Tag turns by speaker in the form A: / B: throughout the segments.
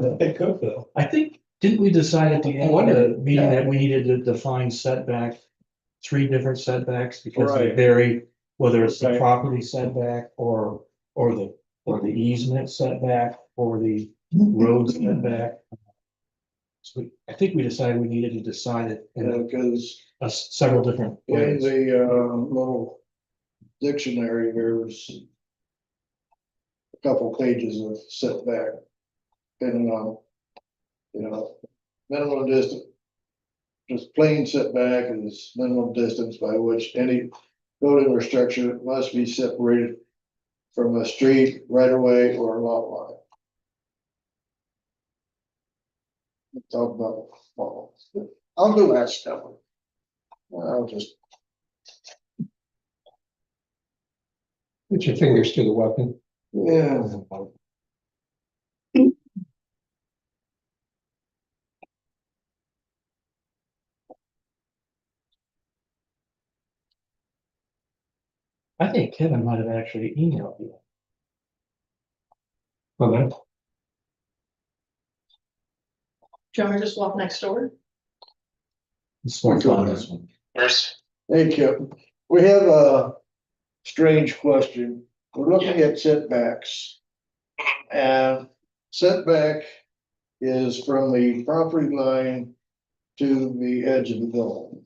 A: They cook though.
B: I think, didn't we decide at the end of the
A: Wonder-
B: meeting
A: yeah.
B: that we needed to define setback? Three different setbacks because they
A: Right.
B: vary, whether it's the
A: Right.
B: property setback or, or the, or the easement setback or the road setback. So we, I think we decided we needed to decide it in
C: because
B: a s- several different
C: in
B: ways.
C: the uh little dictionary, there's. a Couple pages of setback. Depending on, you know, minimum distance. Just plain setback is minimum distance by which any building or structure must be separated. From a street, right of way, or lot line. Talk about, well, I'll do that stuff. Well, I'll just
D: Put your fingers to the weapon.
C: Yeah.
B: I think Kevin might have actually emailed you.
D: on that.
E: Do you want me to just walk next door?
B: It's more fun this one.
C: Thank you. We have a strange question. We're looking at setbacks. And setback is from the property line to the edge of the building.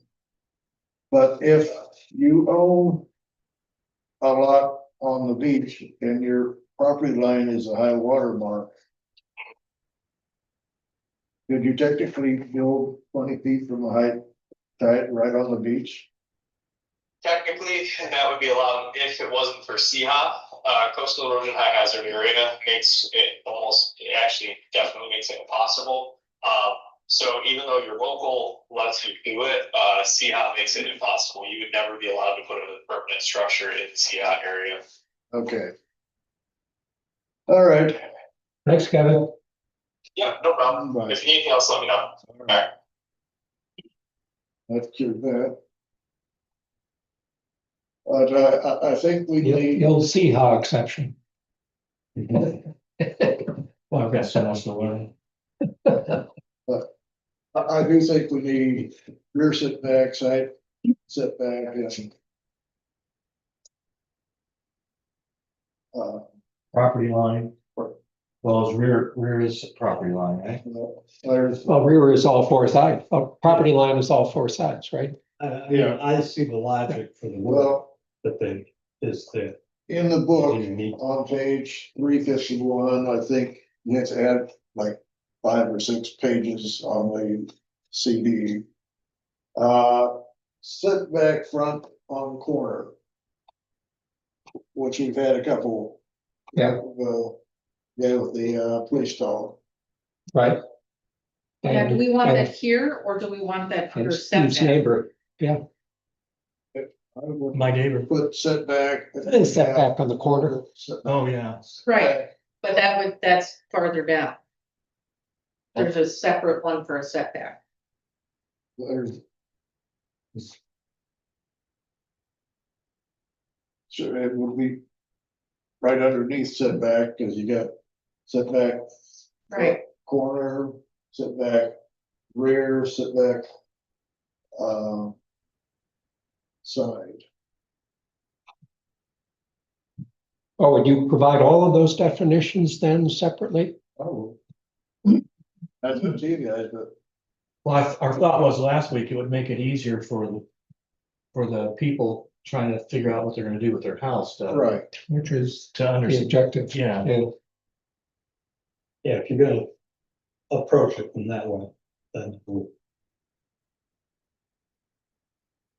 C: But if you own a lot on the beach and your property line is a high water mark, could you technically build twenty feet from the high tide right on the beach?
F: Technically, that would be allowed if it wasn't for CHA. Uh, coastal erosion high hazard area makes it almost, it actually definitely makes it impossible. Uh, so even though your local lets you do it, uh, CHA makes it impossible. You would never be allowed to put a permanent structure in CHA area.
C: Okay. All right.
D: Thanks, Kevin.
F: Yeah, no problem.
C: Bye.
F: If anything else, let me know.
C: Let's do that. But I, I, I think we
D: You'll,
C: need,
D: you'll see how exception.
B: Well, I've got so much to learn.
C: I, I do think we need rear setback, side setback, and uh,
B: Property line.
C: Right.
B: Well, it's rear, rear is property line, right?
C: no, there's,
D: Well, rear is all four sides, oh, property line is all four sides, right?
A: I, I see the logic for uh, the work
C: well,
A: that they, is that
C: in the book,
A: unique.
C: on page three fifty-one, I think you have to add like five or six pages on the CD. Uh, setback front on corner. Which we've had a couple.
D: Yeah.
C: Well, yeah, with the uh police dog.
D: Right?
E: Yeah, do
D: And-
E: we want
D: and-
E: that here or do we want that
D: and
E: under
D: Steve's
E: setback?
D: neighbor,
C: I would
B: My neighbor.
C: put setback.
D: and setback on the corner.
C: Setback.
B: Oh, yeah.
E: Right, but that would, that's farther down. There's a separate one for a setback.
C: There's- Sure, it would be right underneath setback, because you got setback
E: Right,
C: corner, setback rear, setback um, side.
D: Oh, would you provide all of those definitions then separately?
C: Oh. That's up to you guys, but
B: Well, I- our thought was last week, it would make it easier for the, for the people trying to figure out what they're gonna do with their house to,
C: right,
D: Which is
B: to
D: the
B: understand.
D: objective.
B: Yeah,
D: Yeah.
A: Yeah, if you're gonna approach it from that way, then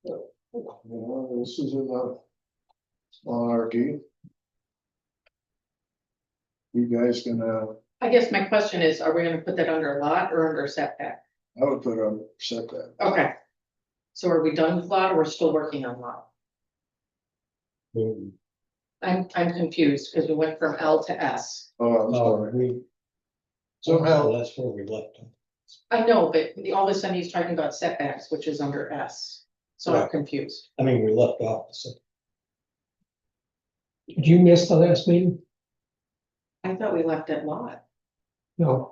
C: you know, this is enough monarchy. You guys gonna
E: I guess my question is, are we gonna put that under a lot or under setback?
C: I would put on setback.
E: Okay. So are we done with lot or we're still working on lot?
A: we,
E: I'm, I'm confused because we went from L to S.
C: Oh, I'm
D: uh,
A: oh,
C: sorry.
A: we.
C: Somehow,
A: That's where we left them.
E: I know, but the- all of a sudden he's talking about setbacks, which is under S. So I'm
A: Right.
E: confused.
A: I mean, we left off the set-
D: Did you miss the last meeting?
E: I thought we left it lot.
D: No,